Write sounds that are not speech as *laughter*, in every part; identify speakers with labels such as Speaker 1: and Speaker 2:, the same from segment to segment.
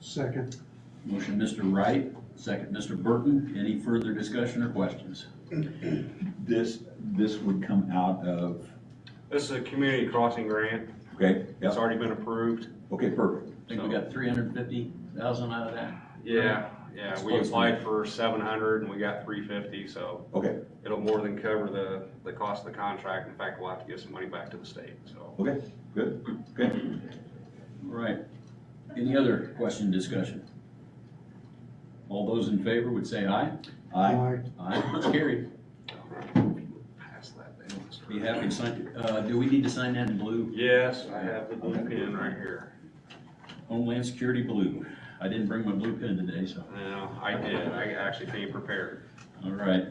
Speaker 1: Second.
Speaker 2: Motion, Mr. Wright, second, Mr. Burton. Any further discussion or questions?
Speaker 3: This, this would come out of,
Speaker 4: This is a community crossing grant.
Speaker 3: okay,
Speaker 4: It's
Speaker 3: yeah,
Speaker 4: already been approved.
Speaker 3: okay, perfect.
Speaker 2: I think we got three hundred and fifty thousand out of that.
Speaker 4: Yeah, yeah, we
Speaker 2: Close.
Speaker 4: applied for seven hundred and we got three fifty, so
Speaker 3: Okay,
Speaker 4: it'll more than cover the, the cost of the contract. In fact, we'll have to give some money back to the state, so.
Speaker 3: okay, good, okay.
Speaker 2: All right. Any other question, discussion? All those in favor would say aye.
Speaker 3: Aye,
Speaker 2: Aye, it's carried.
Speaker 4: Pass that down.
Speaker 2: Be happy to sign, uh, do we need to sign that in blue?
Speaker 4: Yes, I have the blue pen right here.
Speaker 2: Homeland Security blue. I didn't bring my blue pen today, so,
Speaker 4: No, I did. I actually came prepared.
Speaker 2: all right.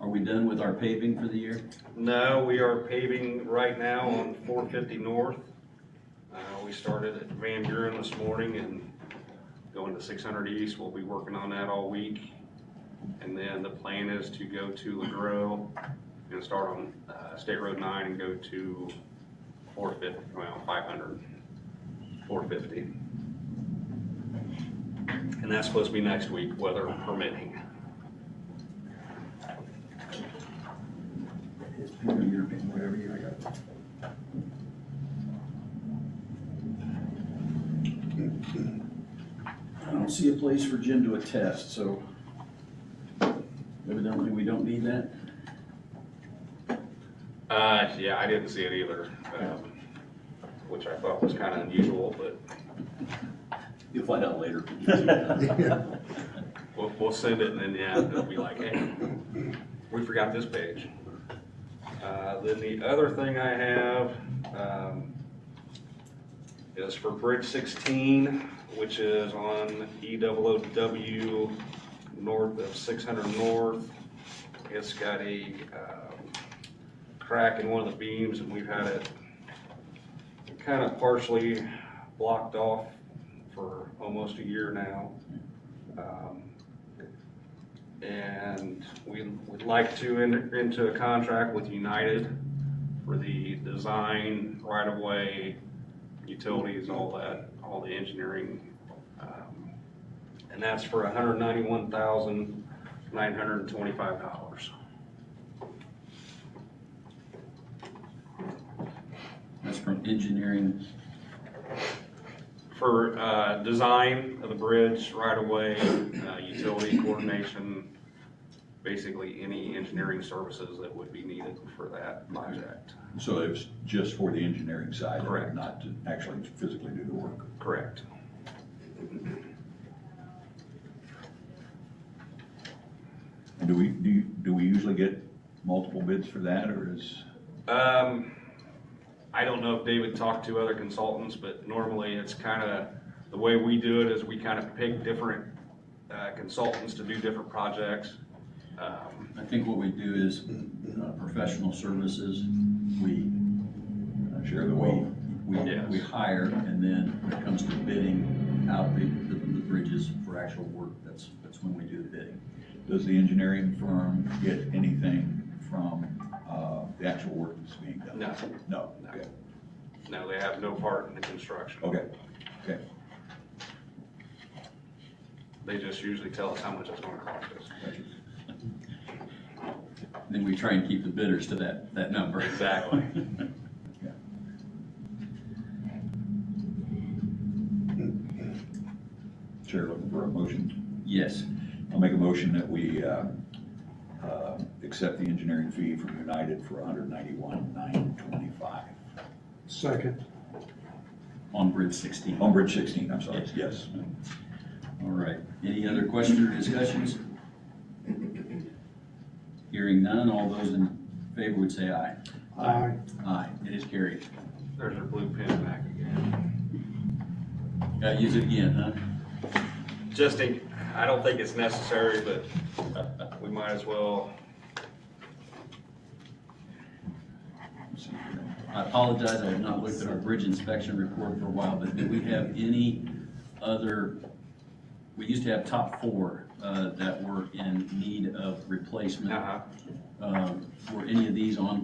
Speaker 2: Are we done with our paving for the year?
Speaker 4: No, we are paving right now on four fifty north. Uh, we started at Van Buren this morning and going to six hundred east. We'll be working on that all week. And then the plan is to go to LaGrow and start on, uh, State Road nine and go to four fifty, well, five hundred, four fifty. And that's supposed to be next week, weather permitting.
Speaker 2: I don't see a place for Jim to attest, so evidently we don't need that.
Speaker 4: Uh, yeah, I didn't see it either, um, which I thought was kind of unusual, but
Speaker 2: You'll find out later.
Speaker 4: we'll, we'll send it and then, yeah, they'll be like, hey, we forgot this page. Uh, then the other thing I have, um, is for Bridge sixteen, which is on E north of six hundred north. It's got a, um, crack in one of the beams and we've had it kind of partially blocked off for almost a year now. Um, And we would like to enter into a contract with United for the design, right-of-way, utilities, all that, all the engineering. um, And that's for hundred ninety-one thousand, nine hundred and twenty-five dollars.
Speaker 2: That's from engineering.
Speaker 4: for uh, design of the bridge, right-of-way, uh, utility coordination, basically any engineering services that would be needed for that project.
Speaker 3: So it was just for the engineering side?
Speaker 4: Correct.
Speaker 3: Not to actually physically do the work?
Speaker 4: Correct.
Speaker 3: And do we, do, you- do we usually get multiple bids for that, or is,
Speaker 4: Um, I don't know if David talked to other consultants, but normally it's kind of, the way we do it is we kind of pick different uh, consultants to do different projects. Um,
Speaker 2: I think what we do is uh, professional services. We
Speaker 3: uh, share the wealth?
Speaker 2: We,
Speaker 4: Yes.
Speaker 2: we hire, and then when it comes to bidding out the, the the bridges for actual work, that's, that's when we do the bidding.
Speaker 3: Does the engineering firm get anything from, uh, the actual work that's being done?
Speaker 4: No,
Speaker 3: No,
Speaker 4: No.
Speaker 3: okay,
Speaker 4: no, they have no part in the construction.
Speaker 3: okay,
Speaker 4: They just usually tell us how much it's going to cost us.
Speaker 3: gotcha.
Speaker 2: Then we try and keep the bidders to that, that number.
Speaker 4: Exactly.
Speaker 3: Chair looking for a motion.
Speaker 2: *laughs* Yes,
Speaker 3: I'll make a motion that we, uh, uh, accept the engineering fee from United for 191,925. nine twenty-five.
Speaker 1: Second.
Speaker 2: on Bridge 16. All
Speaker 3: On Bridge sixteen, I'm sorry, yes.
Speaker 2: right. Any other questions or discussions? Hearing none, all those in favor would say aye.
Speaker 1: Aye.
Speaker 2: Aye, it is carried.
Speaker 4: There's our blue pen back again.
Speaker 2: Gotta use it again, huh?
Speaker 4: Just in, I don't think it's necessary, but *laughs* we might as well.
Speaker 2: I apologize, I have not looked at our bridge inspection report for a while, but do we have any other, we used to have top four uh, that were in need of replacement.
Speaker 4: Uh-huh.
Speaker 2: Um, Were any of these on